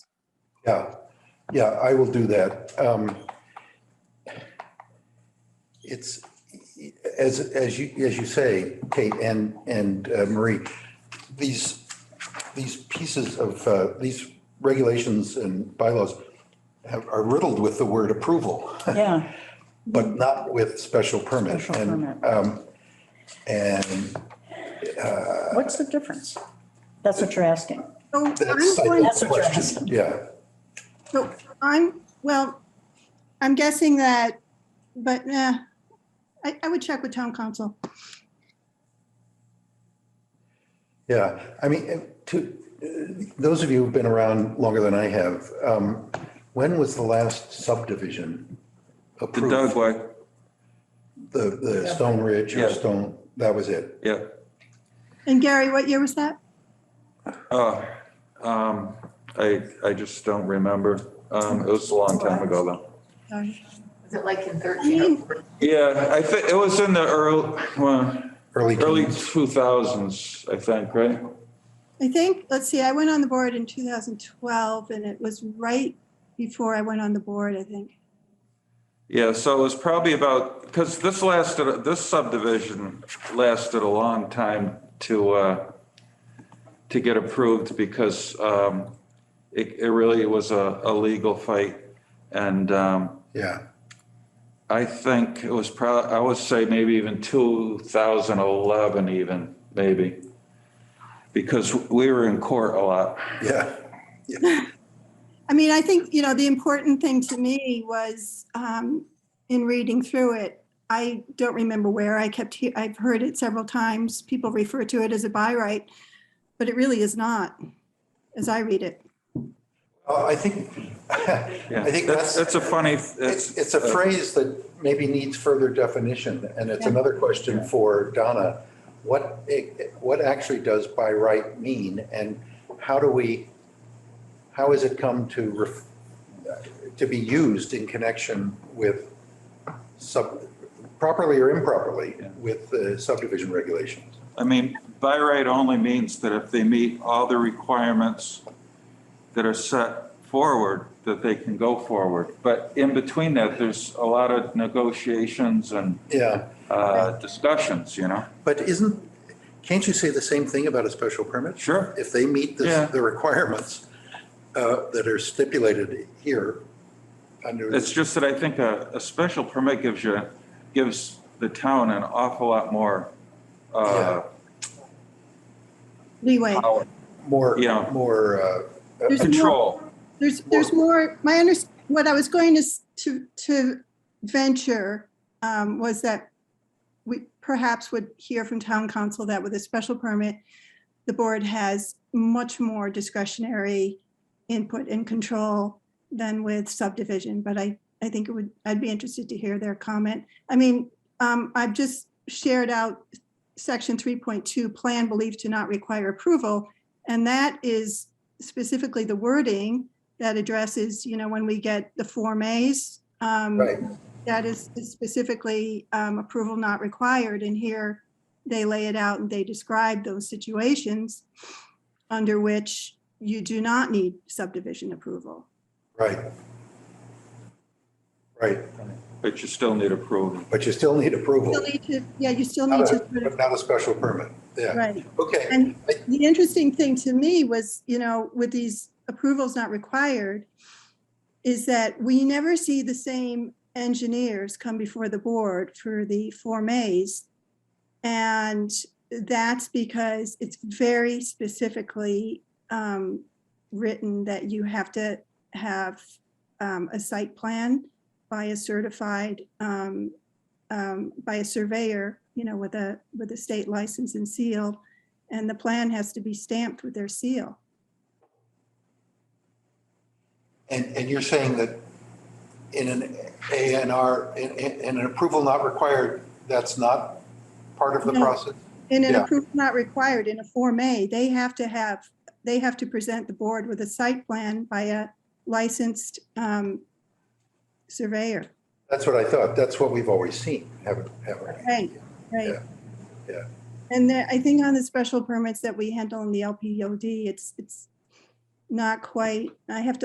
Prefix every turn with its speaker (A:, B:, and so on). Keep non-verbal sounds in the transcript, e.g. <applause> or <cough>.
A: Yeah, yeah, I will do that. Um, It's, as, as you, as you say, Kate and, and uh, Marie, these, these pieces of, uh, these regulations and bylaws have- are riddled with the word approval,
B: Yeah,
A: but not with special permit.
B: Mm-hmm. Special
A: And,
B: permit.
A: um, And
B: what's the difference? That's what you're asking.
C: So I'm
A: that's like
C: going,
B: That's
A: the
B: what you're
A: question,
B: asking.
A: yeah.
C: so I'm, well, I'm guessing that, but eh, I, I would check with town council.
A: Yeah, I mean, to, uh, those of you who've been around longer than I have, um, when was the last subdivision
D: The
A: approved?
D: Dogway,
A: The, the Stone Ridge or
D: Yeah.
A: Stone, that was it.
D: yeah.
C: And Gary, what year was that?
D: Uh, um, I, I just don't remember. Um, It was a long time ago, though.
C: Sorry.
E: Was it like in oh 13 or 14?
D: Yeah, I think it was in the early, well,
A: Early
D: early
A: teens.
D: 2000s, I think, right?
C: I think, let's see, I went on the board in 2012 and it was right before I went on the board, I think.
D: Yeah, so it was probably about, because this lasted, this subdivision lasted a long time to, uh, to get approved because um, it, it really was a, a legal fight. And um,
A: Yeah,
D: I think it was probably, I would say maybe even 2011 even, maybe. Because we were in court a lot.
A: yeah,
C: I mean, I think, you know, the important thing to me was um, in reading through it, I don't remember where I kept, he- I've heard it several times. People refer to it as a by right, but it really is not, as I read it.
A: Uh, I think, I think <laughs> that's.
D: That's a funny,
A: It's,
D: that's,
A: it's uh, a phrase that maybe needs further definition, and it's another question for Donna. What, it- what actually does by right mean, and how do we, how has it come to, ref- to be used in connection with sub, properly or improperly, with the subdivision regulations?
D: I mean, by right only means that if they meet all the requirements that are set forward, that they can go forward. But in between that, there's a lot of negotiations and
A: Yeah,
D: uh, discussions, you know?
A: but isn't, can't you say the same thing about a special permit?
D: Sure.
A: if they meet
D: Yeah.
A: the, the requirements uh, that are stipulated here under.
D: It's just that I think a, a special permit gives you, gives the town an awful lot more, uh,
C: Leeway.
D: power,
A: More,
D: Yeah.
A: more, uh,
C: There's more,
D: control.
C: there's, there's more, my under, what I was going to, s- to, to venture um, was that we perhaps would hear from town council that with a special permit, the board has much more discretionary input and control than with subdivision, but I, I think it would, I'd be interested to hear their comment. I mean, um, I've just shared out section three point two, plan believed to not require approval. And that is specifically the wording that addresses, you know, when we get the Form As. um,
A: right,
C: that is is specifically um, approval not required, and here they lay it out and they describe those situations under which you do not need subdivision approval.
A: right. Right,
D: But you still need approval.
A: but you still need approval,
C: Still need to, yeah, you still need
A: not
C: to,
A: a,
C: sort of-
A: but not a special permit, yeah,
C: right.
A: okay,
C: And the interesting thing to me was, you know, with these approvals not required, is that we never see the same engineers come before the board for the Form As. And that's because it's very specifically um, written that you have to have um, a site plan by a certified, um, um, by a surveyor, you know, with a, with a state license and seal. And the plan has to be stamped with their seal.
A: and, and you're saying that in an A and R, in, in in an approval not required, that's not part of the
C: No.
A: process?
C: In an
A: Yeah.
C: approval not required, in a Form A, they have to have, they have to present the board with a site plan by a licensed um, surveyor.
A: That's what I thought, that's what we've always seen, haven't, haven't we?
C: Right, right.
A: Yeah, yeah.
C: And there- I think on the special permits that we handle in the LPOD, it's, it's not quite, I have to